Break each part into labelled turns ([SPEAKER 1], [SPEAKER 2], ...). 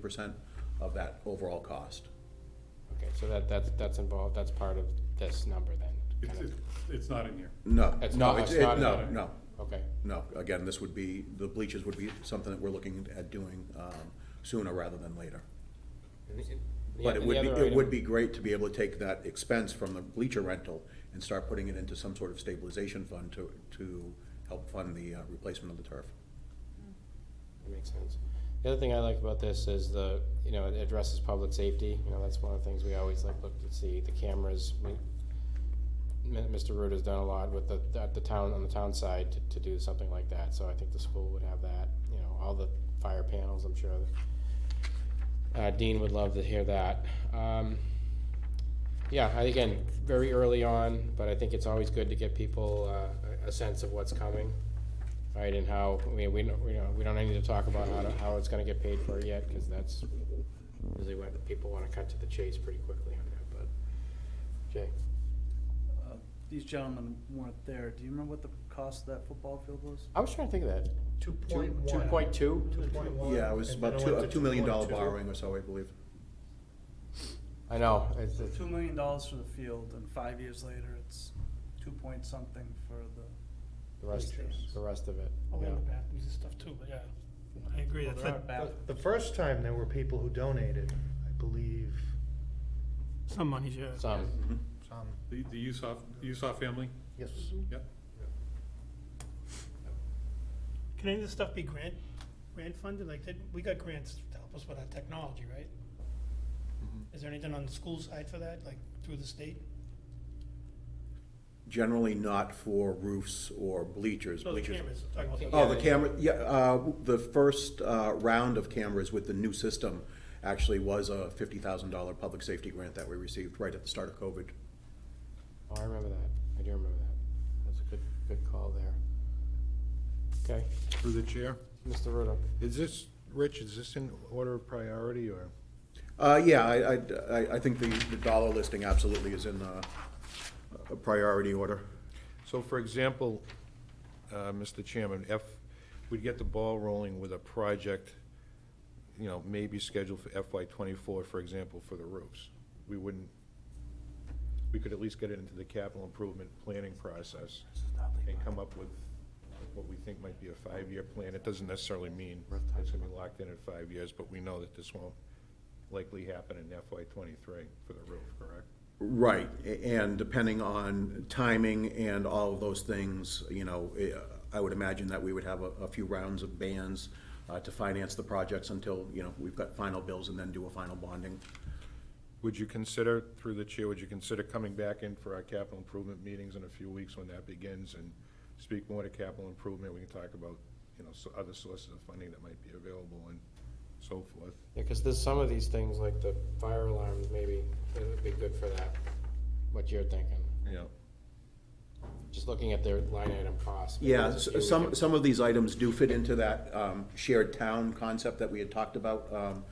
[SPEAKER 1] percent of that overall cost.
[SPEAKER 2] Okay, so that, that's, that's involved, that's part of this number then?
[SPEAKER 3] It's,
[SPEAKER 2] kind of.
[SPEAKER 3] it's- it's not in here.
[SPEAKER 1] No.
[SPEAKER 2] It's
[SPEAKER 1] no,
[SPEAKER 2] not- it's
[SPEAKER 1] it-
[SPEAKER 2] not in
[SPEAKER 1] No,
[SPEAKER 3] there.
[SPEAKER 1] no,
[SPEAKER 2] Okay,
[SPEAKER 1] no. Again, this would be, the bleachers would be something that we're looking at doing um, sooner rather than later. But it would be, it would be great to be able to take that expense from the bleacher rental and start putting it into some sort of stabilization fund to, to help fund the uh, replacement of the turf.
[SPEAKER 2] That makes sense. The other thing I like about this is the, you know, it addresses public safety. You know, that's one of the things we always like look to see, the cameras. We- M- Mr. Root has done a lot with the, at the town, on the town side to, to do something like that. So I think the school would have that, you know, all the fire panels, I'm sure. Uh, Dean would love to hear that. Um, yeah, I, again, very early on, but I think it's always good to get people, uh, a, a sense of what's coming. Right, and how, I mean, we don't, we don't, we don't need to talk about how, to- how it's gonna get paid for yet, cause that's usually when people wanna cut to the chase pretty quickly on that, but, Jay,
[SPEAKER 4] Uh, These gentlemen weren't there. Do you remember what the cost of that football field was?
[SPEAKER 2] I was trying to think of that.
[SPEAKER 5] Two
[SPEAKER 2] Two,
[SPEAKER 5] point
[SPEAKER 2] two
[SPEAKER 5] one.
[SPEAKER 2] point two?
[SPEAKER 5] Two point one.
[SPEAKER 1] Yeah, it was
[SPEAKER 5] and then
[SPEAKER 1] about
[SPEAKER 5] it
[SPEAKER 1] two,
[SPEAKER 5] went
[SPEAKER 1] a
[SPEAKER 5] to
[SPEAKER 1] two million dollar
[SPEAKER 5] 2.2.
[SPEAKER 1] borrowing or so, I believe.
[SPEAKER 2] I know, it's,
[SPEAKER 4] So
[SPEAKER 2] it's,
[SPEAKER 4] two million dollars for the field, and five years later, it's two point something for the.
[SPEAKER 2] the rest,
[SPEAKER 4] bleachers.
[SPEAKER 2] the rest of it,
[SPEAKER 6] Oh, we
[SPEAKER 2] yeah.
[SPEAKER 6] have the bathrooms and stuff too, but yeah, I agree,
[SPEAKER 4] Well,
[SPEAKER 6] that's
[SPEAKER 4] there are
[SPEAKER 6] it.
[SPEAKER 4] bath-
[SPEAKER 5] The first time there were people who donated, I believe,
[SPEAKER 6] Some money's, yeah.
[SPEAKER 2] Some,
[SPEAKER 1] Mm-hmm.
[SPEAKER 5] some,
[SPEAKER 3] The, the Usoff, Usoff family,
[SPEAKER 5] yes.
[SPEAKER 3] yep.
[SPEAKER 6] Can any of this stuff be grant, grant funded? Like, did, we got grants to help us with our technology, right?
[SPEAKER 1] Mm-hmm.
[SPEAKER 6] Is there anything on the school side for that, like through the state?
[SPEAKER 1] Generally not for roofs or bleachers.
[SPEAKER 6] No, the
[SPEAKER 1] Bleachers-
[SPEAKER 6] cameras, talking about the.
[SPEAKER 1] Oh, the camera, yeah, uh, the first, uh, round of cameras with the new system actually was a fifty thousand dollar public safety grant that we received right at the start of COVID.
[SPEAKER 2] oh, I remember that, I do remember that, that's a good, good call there. Okay,
[SPEAKER 7] Through the chair,
[SPEAKER 2] Mr. Ruda,
[SPEAKER 7] is this, Rich, is this in order of priority or?
[SPEAKER 1] Uh, yeah, I, I, I- I think the, the dollar listing absolutely is in, uh, a priority order.
[SPEAKER 7] So for example, uh, Mr. Chairman, if we'd get the ball rolling with a project, you know, maybe scheduled for FY twenty-four, for example, for the roofs, we wouldn't, we could at least get it into the capital improvement planning process and come up with what we think might be a five-year plan. It doesn't necessarily mean it's gonna be locked in at five years, but we know that this won't likely happen in FY twenty-three for the roof, correct?
[SPEAKER 1] Right, a- and depending on timing and all of those things, you know, eh, I would imagine that we would have a, a few rounds of bans, uh, to finance the projects until, you know, we've got final bills and then do a final bonding.
[SPEAKER 7] Would you consider, through the chair, would you consider coming back in for our capital improvement meetings in a few weeks when that begins and speak more to capital improvement? We can talk about, you know, so other sources of funding that might be available and so forth.
[SPEAKER 2] yeah, cause there's some of these things, like the fire alarms, maybe, it would be good for that, what you're thinking.
[SPEAKER 7] Yeah.
[SPEAKER 2] Just looking at their line item costs. maybe
[SPEAKER 1] Yeah,
[SPEAKER 2] there's a
[SPEAKER 1] s-
[SPEAKER 2] few we
[SPEAKER 1] some,
[SPEAKER 2] can-
[SPEAKER 1] some of these items do fit into that um, shared town concept that we had talked about um,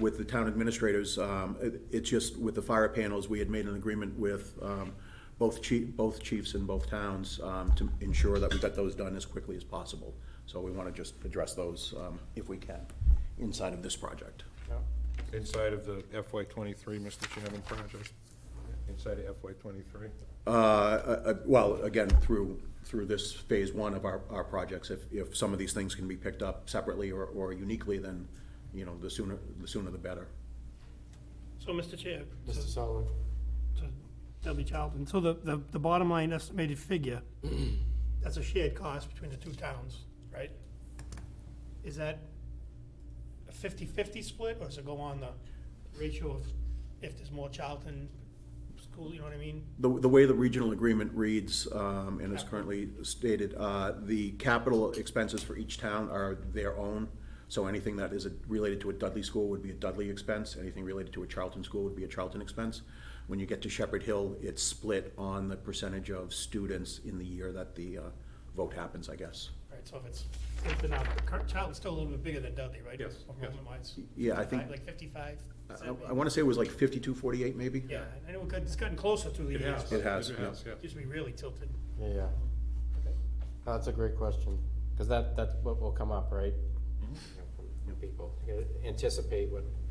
[SPEAKER 1] with the town administrators. Um, it- It's just with the fire panels, we had made an agreement with um, both chief, both chiefs in both towns um, to ensure that we got those done as quickly as possible. So we want to just address those um, if we can inside of this project.
[SPEAKER 2] Yeah.
[SPEAKER 7] Inside of the FY twenty-three, Mr. Chairman, project, inside of FY twenty-three?
[SPEAKER 1] Uh, uh, uh, Well, again, through, through this phase one of our, our projects, if, if some of these things can be picked up separately or, or uniquely, then, you know, the sooner, the sooner the better.
[SPEAKER 6] So, Mr. Chair,
[SPEAKER 2] Mr.
[SPEAKER 6] so-
[SPEAKER 2] Sullivan,
[SPEAKER 6] to Dudley Charlton, so the, the, the bottom line estimated figure, that's a shared cost between the two towns, right? Is that a fifty-fifty split, or does it go on the ratio of if there's more Charlton school, you know what I mean?
[SPEAKER 1] The, the way the regional agreement reads, um, and is currently stated, uh, the capital expenses for each town are their own. So anything that is related to a Dudley school would be a Dudley expense, anything related to a Charlton school would be a Charlton expense. When you get to Shepherd Hill, it's split on the percentage of students in the year that the, uh, vote happens, I guess.
[SPEAKER 6] Right, so if it's, if they're not, Car- Charlton's still a little bit bigger than Dudley, right?
[SPEAKER 3] Yes, yes.
[SPEAKER 6] Enrollment-wise.
[SPEAKER 1] Yeah, I think-
[SPEAKER 6] Like
[SPEAKER 1] I-
[SPEAKER 6] fifty-five?
[SPEAKER 1] I, I wanna say it was like fifty-two, forty-eight maybe?
[SPEAKER 6] Yeah, I know it got- it's gotten closer through the
[SPEAKER 3] It
[SPEAKER 6] years.
[SPEAKER 3] has.
[SPEAKER 1] It has,
[SPEAKER 3] It
[SPEAKER 1] yeah.
[SPEAKER 3] has, yeah.
[SPEAKER 6] Used to be really tilted.
[SPEAKER 2] yeah, yeah. Oh, No, That's a great question, because that, that's what will come up, right?
[SPEAKER 1] Yep.
[SPEAKER 2] people, You gotta anticipate what